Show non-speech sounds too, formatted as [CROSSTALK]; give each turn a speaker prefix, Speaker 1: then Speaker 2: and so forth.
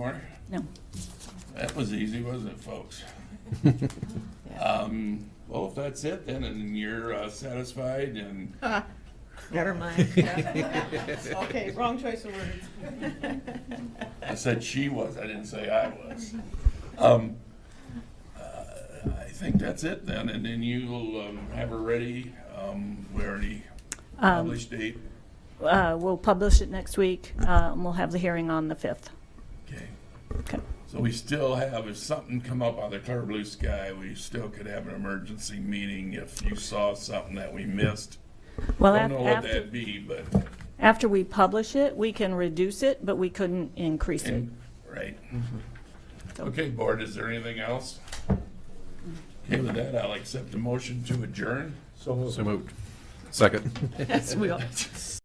Speaker 1: weren't?
Speaker 2: No.
Speaker 1: That was easy, wasn't it, folks?
Speaker 2: Yeah.
Speaker 1: Um, well, if that's it then, and you're uh, satisfied and
Speaker 3: Never mind.
Speaker 4: [LAUGHS] Okay, wrong choice of words.
Speaker 1: I said she was, I didn't say I was. Um, uh, I think that's it then, and then you'll um, have her ready, um, we already
Speaker 2: Um,
Speaker 1: published date.
Speaker 2: Uh, We'll publish it next week, uh, and we'll have the hearing on the 5th.
Speaker 1: Okay,
Speaker 2: Okay.
Speaker 1: so we still have, if something come up out of clear blue sky, we still could have an emergency meeting if you saw something that we missed.
Speaker 2: Well,
Speaker 1: Don't
Speaker 2: af-
Speaker 1: know what
Speaker 2: after,
Speaker 1: that'd be, but,
Speaker 2: after we publish it, we can reduce it, but we couldn't increase it.
Speaker 1: and- right. Okay, board, is there anything else? Okay, with that, I'll accept the motion to adjourn.
Speaker 5: So moved. Second.